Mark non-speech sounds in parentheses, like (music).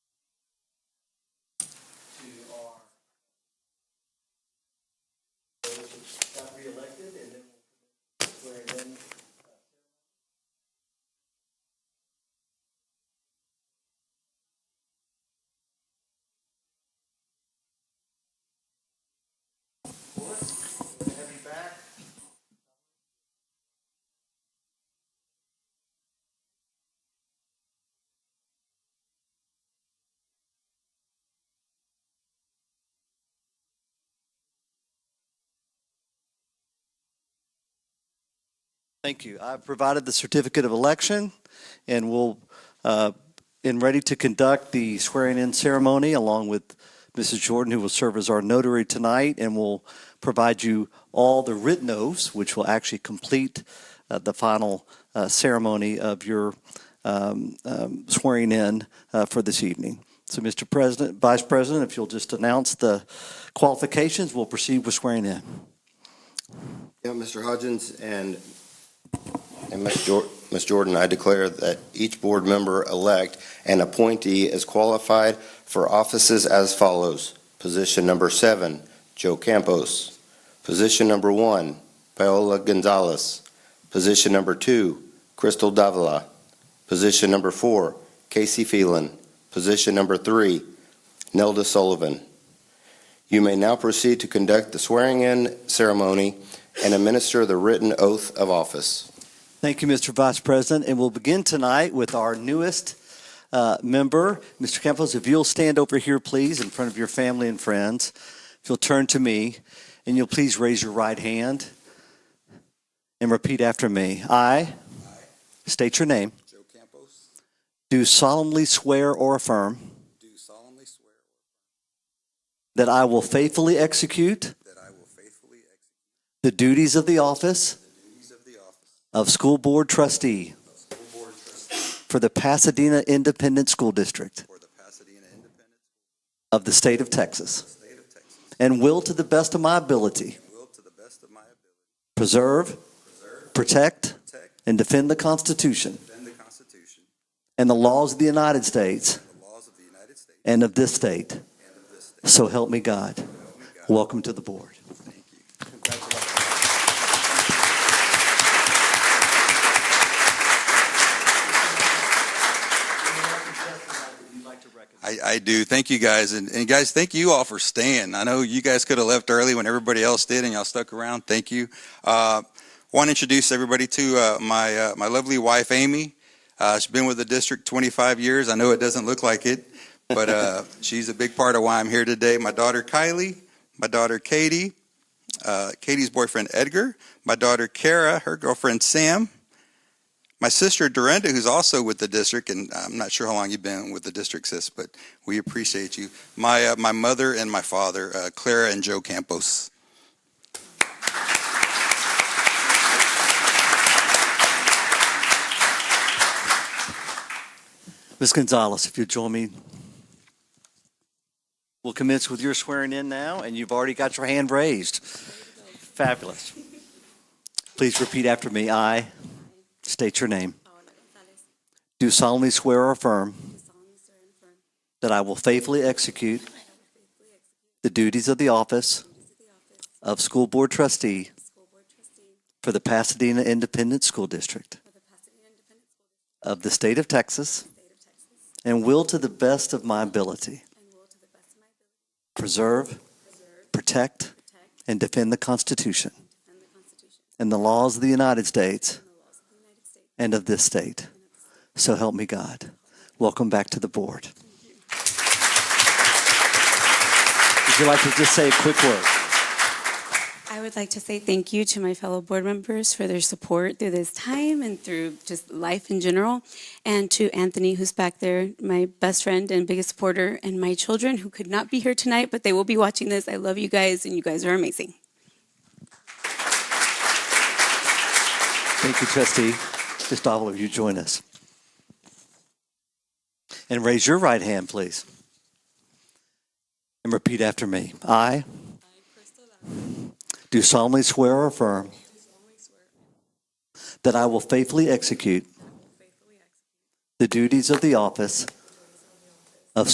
support. Good to have you back. Thank you. I've provided the certificate of election, and we'll, uh, and ready to conduct the swearing-in ceremony along with Mrs. Jordan, who will serve as our notary tonight, and will provide you all the written oaths, which will actually complete uh, the final uh, ceremony of your um, um, swearing in uh, for this evening. So, Mr. President, Vice President, if you'll just announce the qualifications, we'll proceed with swearing in. Yeah, Mr. Hodgins and, and Ms. Jor- Ms. Jordan, I declare that each board member-elect and appointee is qualified for offices as follows. Position number seven, Joe Campos. Position number one, Paola Gonzalez. Position number two, Crystal Davila. Position number four, Casey Phelan. Position number three, Nelda Sullivan. You may now proceed to conduct the swearing-in ceremony and administer the written oath of office. Thank you, Mr. Vice President. And we'll begin tonight with our newest uh, member. Mr. Campos, if you'll stand over here, please, in front of your family and friends. If you'll turn to me and you'll please raise your right hand and repeat after me. I state your name, Joe Campos, do solemnly swear or affirm do solemnly swear that I will faithfully execute that I will faithfully execute the duties of the office the duties of the office of School Board Trustee of School Board Trustee for the Pasadena Independent School District for the Pasadena Independent of the State of Texas. State of Texas, and will to the best of my ability and will to the best of my ability preserve, protect, preserve, protect, and defend the Constitution defend the Constitution and the laws of the United States and the laws of the United States and of this state. and of this state. So help me God. Help me God. Welcome to the board. Thank you. I, I do. Thank you guys. And, and guys, thank you all for staying. I know you guys could have left early when everybody else did and y'all stuck around. Thank you. Uh, want to introduce everybody to uh, my, uh, my lovely wife, Amy. Uh, she's been with the district 25 years. I know it doesn't look like it, but uh, (laughs) she's a big part of why I'm here today. My daughter, Kylie, my daughter, Katie, uh, Katie's boyfriend, Edgar, my daughter, Kara, her girlfriend, Sam, my sister Dorinda, who's also with the district, and I'm not sure how long you've been with the district, sis, but we appreciate you. My uh, my mother and my father, uh, Clara and Joe Campos. Ms. Gonzalez, if you'll join me. We'll commence with your swearing in now, and you've already got your hand raised. Fabulous. Please repeat after me. I state your name. Paola González, Do solemnly swear or affirm do solemnly swear and affirm (clears throat) that I will faithfully execute that I will faithfully execute the duties of the office the duties of the office of School Board Trustee of School Board Trustee for the Pasadena Independent School District for the Pasadena Independent School District of the State of Texas of the State of Texas, and will to the best of my ability and will to the best of my ability preserve, preserve, protect, protect, and defend the Constitution and defend the Constitution and the laws of the United States and the laws of the United States and of this state. and of the state. So help me God. Welcome back to the board. Would you like to just say a quick word? I would like to say thank you to my fellow board members for their support through this time and through just life in general, and to Anthony, who's back there, my best friend and biggest supporter, and my children who could not be here tonight, but they will be watching this. I love you guys, and you guys are amazing. Thank you, trustee. Ms. Dovel, if you join us. And raise your right hand, please. And repeat after me. I do solemnly swear or affirm that I will faithfully execute the duties of the office